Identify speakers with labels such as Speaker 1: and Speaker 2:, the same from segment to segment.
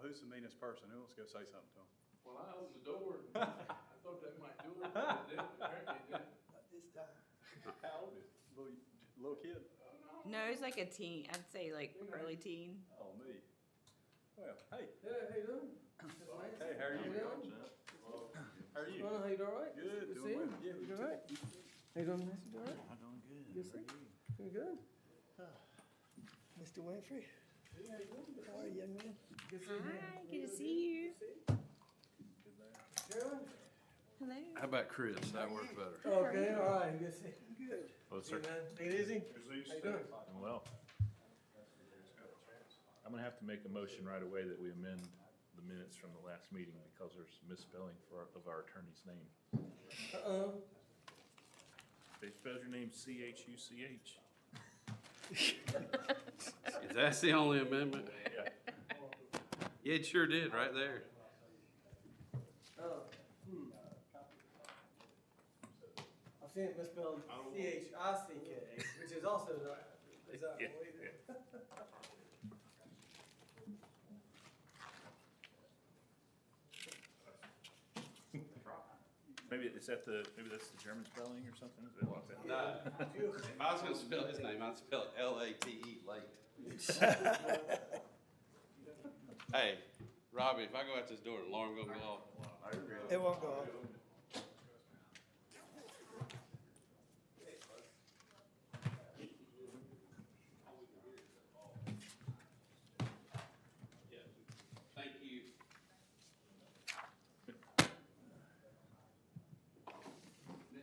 Speaker 1: who's the meanest person? Who wants to go say something to him?
Speaker 2: Well, I opened the door, and I thought that might do it, but it didn't, apparently it didn't.
Speaker 3: Not this time.
Speaker 1: How old is Little, little kid?
Speaker 2: Oh,
Speaker 4: No, it's like a teen. I'd say like early teen.
Speaker 1: Oh, me. Well, hey,
Speaker 3: Yeah, how you doing? That's nice.
Speaker 1: hey, how are you?
Speaker 3: doing?
Speaker 1: How are you?
Speaker 3: Well, how you doing, all right?
Speaker 1: Good,
Speaker 3: to
Speaker 1: doing
Speaker 3: see you.
Speaker 1: well. Yeah,
Speaker 3: You doing all right? How you doing, Mr. Doing all right?
Speaker 1: I'm doing good.
Speaker 3: Yes, sir. Doing good? Mr. Winfrey,
Speaker 2: no. Yeah, you wouldn't.
Speaker 3: how are you, young man? Good to see you.
Speaker 4: Hi, good to see you.
Speaker 3: Carolyn?
Speaker 4: Hello.
Speaker 5: How about Chris? That worked better.
Speaker 3: Okay, all right, good to see you. Good.
Speaker 5: Well,
Speaker 3: Hey, man, Take it easy. How you doing?
Speaker 5: Well, I'm gonna have to make a motion right away that we amend the minutes from the last meeting because there's misspelling for, of our attorney's name.
Speaker 3: Uh-oh.
Speaker 5: They spelled your name C H U C H.
Speaker 6: If that's the only amendment,
Speaker 5: Yeah.
Speaker 6: yeah, it sure did, right there.
Speaker 3: Oh, hmm. I've seen it misspelled
Speaker 1: Oh.
Speaker 3: C-H-I-C-K, which is also not, is that
Speaker 5: Yeah,
Speaker 3: related?
Speaker 5: Maybe it's at the, maybe that's the German spelling or something? Is that what that-
Speaker 6: Nah, if I was gonna spell his name, I'd spell it L A T E, late. Hey, Robbie, if I go out this door, the alarm gonna go off.
Speaker 3: It won't go off.
Speaker 6: Thank you.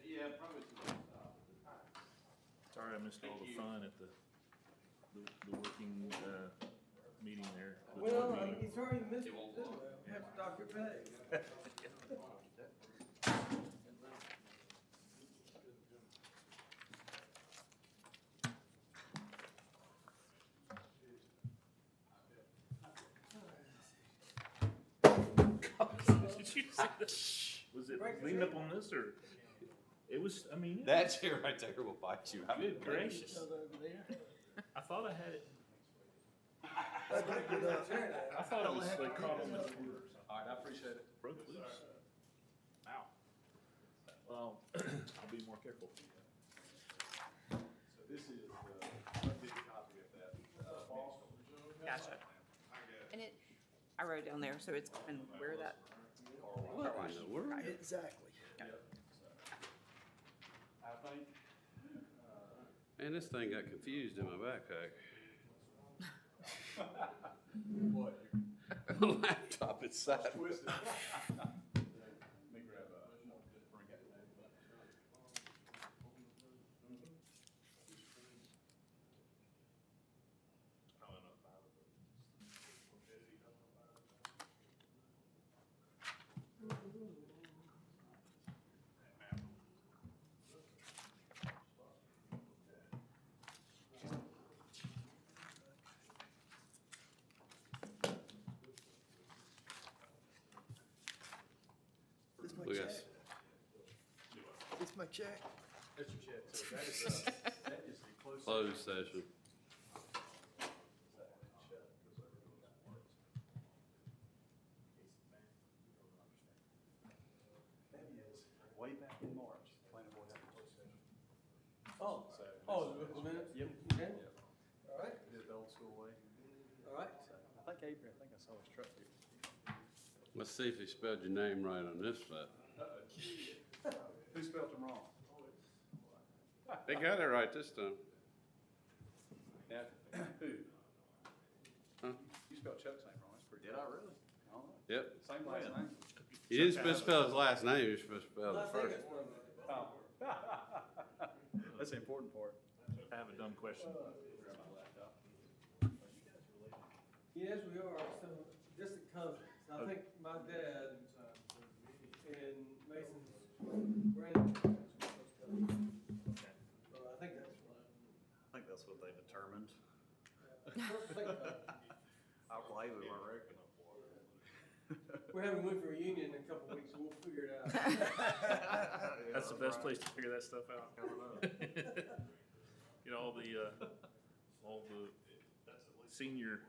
Speaker 6: Yeah, probably.
Speaker 5: Sorry, I missed all the fun at the, the- the working, uh, meeting there. the board
Speaker 3: Well, I mean,
Speaker 5: meeting.
Speaker 3: it's already missed,
Speaker 6: It won't go off.
Speaker 3: we have to dock your pay.
Speaker 5: Did you see that? Was it
Speaker 3: Break the
Speaker 5: leaned up
Speaker 3: tree.
Speaker 5: on this or? It was, I mean, it-
Speaker 6: That chair right there will bite you. I
Speaker 5: good
Speaker 6: mean,
Speaker 5: gracious. I thought I had it,
Speaker 3: That's a good old chair there.
Speaker 5: I thought it was like caught on the corner.
Speaker 6: All right, I appreciate it.
Speaker 5: Broke loose. Wow. Well, I'll be more careful.
Speaker 1: So this is, uh, a big copy of that. uh,
Speaker 4: Gotcha. And it, I wrote down there, so it's and where that.
Speaker 6: What in the world?
Speaker 3: Exactly.
Speaker 1: I think
Speaker 6: Man, this thing got confused in my backpack.
Speaker 1: what,
Speaker 6: Laptop inside.
Speaker 1: twisted. Let me grab a, bring it.
Speaker 3: This is my
Speaker 6: Look at
Speaker 3: check.
Speaker 6: this.
Speaker 3: This is my check.
Speaker 1: That's your check. So that is, uh, that is the closest.
Speaker 6: Closed session.
Speaker 1: That is way back in March, planning board had a closed session.
Speaker 3: Oh,
Speaker 1: So this
Speaker 3: oh,
Speaker 1: is-
Speaker 3: the minutes?
Speaker 1: Yep.
Speaker 3: Okay. All right,
Speaker 1: Did it the old school way.
Speaker 3: all right.
Speaker 1: So I think Adrian, I think I saw his truck here.
Speaker 6: Let's see if he spelled your name right on this one.
Speaker 1: Who spelled him wrong?
Speaker 6: They got it right this time.
Speaker 1: Who?
Speaker 6: Huh?
Speaker 1: You spelled Chuck's name wrong, that's pretty. Did I really? I don't know.
Speaker 6: Yep.
Speaker 1: Same last name.
Speaker 6: You didn't misspell his last name, you supposed to spell
Speaker 3: Last
Speaker 6: it
Speaker 3: thing
Speaker 6: first.
Speaker 3: is one minute.
Speaker 1: Oh. That's the important part.
Speaker 5: I have a dumb question.
Speaker 3: Yes, we are, so distant cousins. I think my dad and Mason's grandparents. were close cousins. So I think that's right.
Speaker 1: I think that's what they determined.
Speaker 3: First thing about it,
Speaker 1: I believe it, I reckon.
Speaker 3: We're having Winfrey reunion in a couple weeks, we'll figure it out.
Speaker 5: That's the best place to figure that stuff out. You know, all the, uh, all the senior